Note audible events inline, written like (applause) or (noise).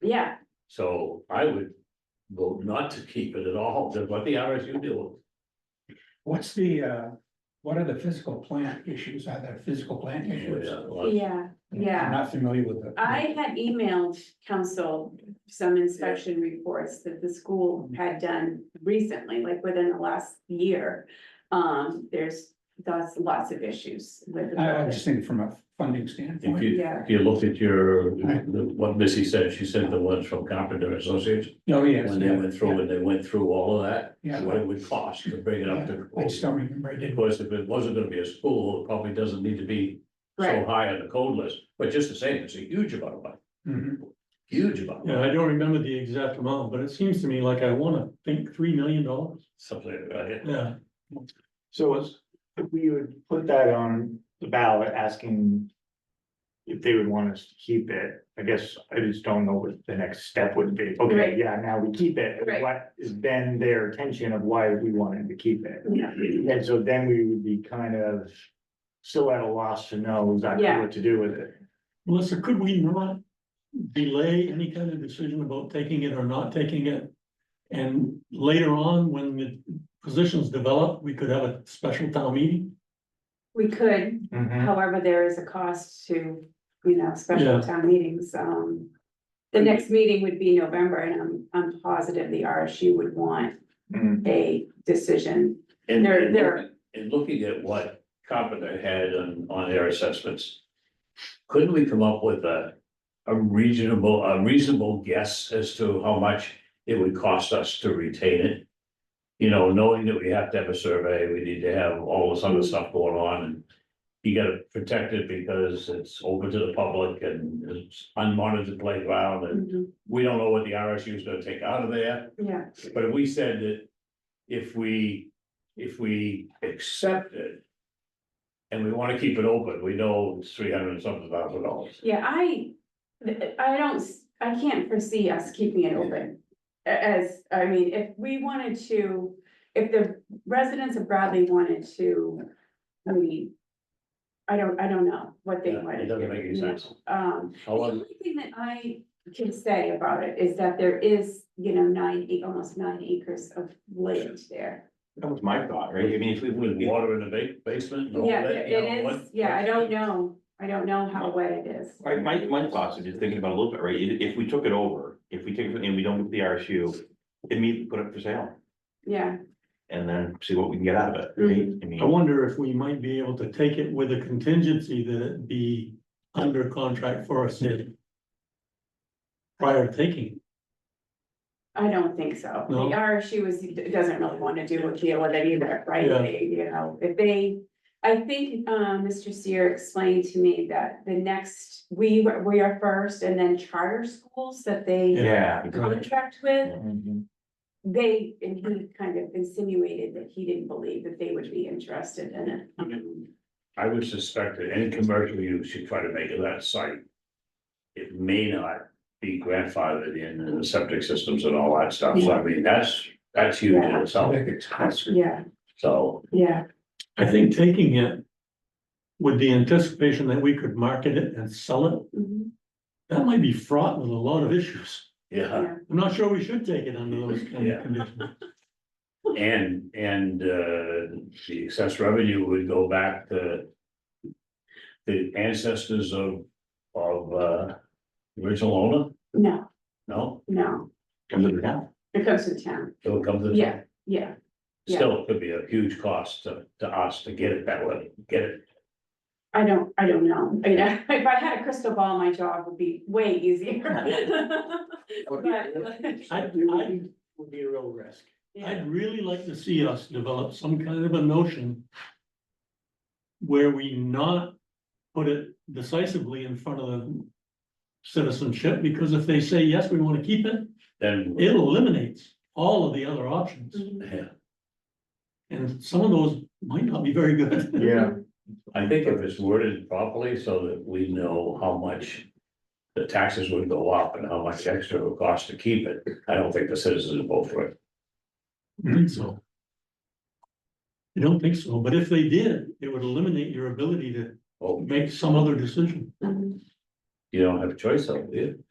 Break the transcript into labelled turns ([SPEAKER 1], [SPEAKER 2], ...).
[SPEAKER 1] yeah,
[SPEAKER 2] So I would vote not to keep it at all, just let the RSU do
[SPEAKER 3] What's the, uh, what are the physical plant issues? Are there physical plant issues?
[SPEAKER 2] it.
[SPEAKER 1] yeah, yeah.
[SPEAKER 3] I'm not familiar with the.
[SPEAKER 1] I had emailed council some inspection reports that the school had done recently, like within the last year. Um, there's, that's lots of issues with. the
[SPEAKER 3] I I
[SPEAKER 1] budget.
[SPEAKER 3] just think from a funding standpoint.
[SPEAKER 2] If you,
[SPEAKER 1] Yeah.
[SPEAKER 2] if you look at your, the- what Missy said, she said the ones from Carpenter Associates,
[SPEAKER 3] Oh, yes.
[SPEAKER 2] when they went through and they went through all of that,
[SPEAKER 3] Yeah.
[SPEAKER 2] what it would cost to bring it up
[SPEAKER 3] I just
[SPEAKER 2] to.
[SPEAKER 3] don't remember. I
[SPEAKER 2] Of
[SPEAKER 3] did.
[SPEAKER 2] course, if it wasn't gonna be a school, it probably doesn't need to be so
[SPEAKER 1] Right,
[SPEAKER 2] high on the code list, but just the same, it's a huge amount of money,
[SPEAKER 3] Mhm.
[SPEAKER 2] huge amount. of
[SPEAKER 4] Yeah,
[SPEAKER 2] money.
[SPEAKER 4] I don't remember the exact amount, but it seems to me like I wanna think three million dollars.
[SPEAKER 2] Something, right?
[SPEAKER 4] Yeah,
[SPEAKER 5] So it's- if we would put that on the ballot asking. If they would want us to keep it, I guess I just don't know what the next step would be.
[SPEAKER 1] Right.
[SPEAKER 5] Okay, yeah, now we keep it.
[SPEAKER 1] Right.
[SPEAKER 5] What has been their attention of why we wanted to keep it?
[SPEAKER 1] Yeah.
[SPEAKER 5] And so then we would be kind of still at a loss to know exactly
[SPEAKER 1] Yeah.
[SPEAKER 5] what to do with it.
[SPEAKER 4] Melissa, could we not delay any kind of decision about taking it or not taking it? And later on, when the positions develop, we could have a special town meeting?
[SPEAKER 1] we could,
[SPEAKER 5] Mhm.
[SPEAKER 1] however, there is a cost to, you know, special
[SPEAKER 4] Yeah.
[SPEAKER 1] town meetings, um. The next meeting would be November, and I'm, I'm positive the RSU would want
[SPEAKER 5] Mm.
[SPEAKER 1] a decision.
[SPEAKER 2] And,
[SPEAKER 1] They're-
[SPEAKER 2] and
[SPEAKER 1] they're-
[SPEAKER 2] looking- and looking at what Carpenter had on, on their assessments. Couldn't we come up with a, a reasonable, a reasonable guess as to how much it would cost us to retain it? You know, knowing that we have to have a survey, we need to have all this
[SPEAKER 1] Mm-hmm.
[SPEAKER 2] other stuff going on and. You gotta protect it because it's open to the public and it's unmonitored playground and
[SPEAKER 1] Mhm,
[SPEAKER 2] we don't know what the RSU is gonna take out of there.
[SPEAKER 1] Yeah,
[SPEAKER 2] But if we said that if we, if we accept it. And we wanna keep it open, we know it's three hundred and something thousand dollars.
[SPEAKER 1] Yeah, I, I don't, s- I can't foresee us keeping it open. A- As, I mean, if we wanted to, if the residents of Bradley wanted to, I mean. I don't, I don't know what they
[SPEAKER 2] Yeah, it
[SPEAKER 1] wanted. to
[SPEAKER 2] doesn't
[SPEAKER 1] do,
[SPEAKER 2] make any
[SPEAKER 1] you know,
[SPEAKER 2] sense.
[SPEAKER 1] Um, the
[SPEAKER 2] However,
[SPEAKER 1] only thing that I can say about it is that there is, you know, nine, ac- almost nine acres of land there.
[SPEAKER 6] That was my thought, right? I mean, if we
[SPEAKER 2] with
[SPEAKER 6] would,
[SPEAKER 2] water in the ba- basement and all
[SPEAKER 1] Yeah,
[SPEAKER 2] that,
[SPEAKER 1] it
[SPEAKER 2] you know,
[SPEAKER 1] it
[SPEAKER 2] what?
[SPEAKER 1] is, yeah, I don't know, I don't know how wet it is.
[SPEAKER 6] my, my, my thoughts are just thinking about it a little bit, right? If, if we took it over, if we take it and we don't get the RSU, immediately put it for sale
[SPEAKER 1] Yeah,
[SPEAKER 6] and then see what we can get out of it, right? I
[SPEAKER 4] I
[SPEAKER 6] mean,
[SPEAKER 4] wonder if we might be able to take it with a contingency that it be under contract for a city. Prior to taking. it.
[SPEAKER 1] I don't think so. The
[SPEAKER 4] No?
[SPEAKER 1] RSU is, doesn't really want to do a deal with it either, right?
[SPEAKER 4] Yeah.
[SPEAKER 1] They, you know, if they, I think, um, Mr. Seer explained to me that the next, we, were- we are first and then charter schools that they
[SPEAKER 6] yeah.
[SPEAKER 1] contract with,
[SPEAKER 5] Mhm.
[SPEAKER 1] they, and he kind of insinuated that he didn't believe that they would be interested in it. Um,
[SPEAKER 2] I would suspect that any commercial use should try to make it that site. It may not be grandfathered in and the septic systems and all that stuff, so I mean, that's, that's huge in
[SPEAKER 1] Yeah.
[SPEAKER 2] itself,
[SPEAKER 3] Big expense.
[SPEAKER 1] Yeah,
[SPEAKER 2] so.
[SPEAKER 1] yeah,
[SPEAKER 4] I think taking it with the anticipation that we could market it and sell it,
[SPEAKER 1] mhm,
[SPEAKER 4] that might be fraught with a lot of issues.
[SPEAKER 2] Yeah.
[SPEAKER 1] yeah,
[SPEAKER 4] I'm not sure we should take it under those kind
[SPEAKER 2] Yeah.
[SPEAKER 4] of conditions.
[SPEAKER 2] And, and, uh, the excess revenue would go back to. The ancestors of, of, uh, original owner,
[SPEAKER 1] no,
[SPEAKER 2] no,
[SPEAKER 1] no,
[SPEAKER 6] Comes to the town.
[SPEAKER 1] it comes to town,
[SPEAKER 2] it'll come to. the-
[SPEAKER 1] yeah, yeah. yeah.
[SPEAKER 2] Still could be a huge cost to, to us to get it that way, get it,
[SPEAKER 1] I don't, I don't know. I mean, if I had a crystal ball, my job would be way easier. (laughs)
[SPEAKER 5] Would be a real-
[SPEAKER 1] But-
[SPEAKER 4] I- I-
[SPEAKER 5] Would be a real risk.
[SPEAKER 1] Yeah,
[SPEAKER 4] I'd really like to see us develop some kind of a notion where we not put it decisively in front of the citizenship, because if they say, yes, we want to keep it,
[SPEAKER 2] then.
[SPEAKER 4] it eliminates all of the other options.
[SPEAKER 1] Mhm.
[SPEAKER 2] Yeah.
[SPEAKER 4] And some of those might not be very good. (laughs)
[SPEAKER 5] Yeah.
[SPEAKER 2] I think if it's worded properly so that we know how much. The taxes would go up and how much extra it would cost to keep it, I don't think the citizens would vote for it.
[SPEAKER 4] I think so. I don't think so, but if they did, it would eliminate your ability to
[SPEAKER 2] Well,
[SPEAKER 4] make some other decision.
[SPEAKER 1] Mhm.
[SPEAKER 2] you don't Oh, have a choice, though, do you?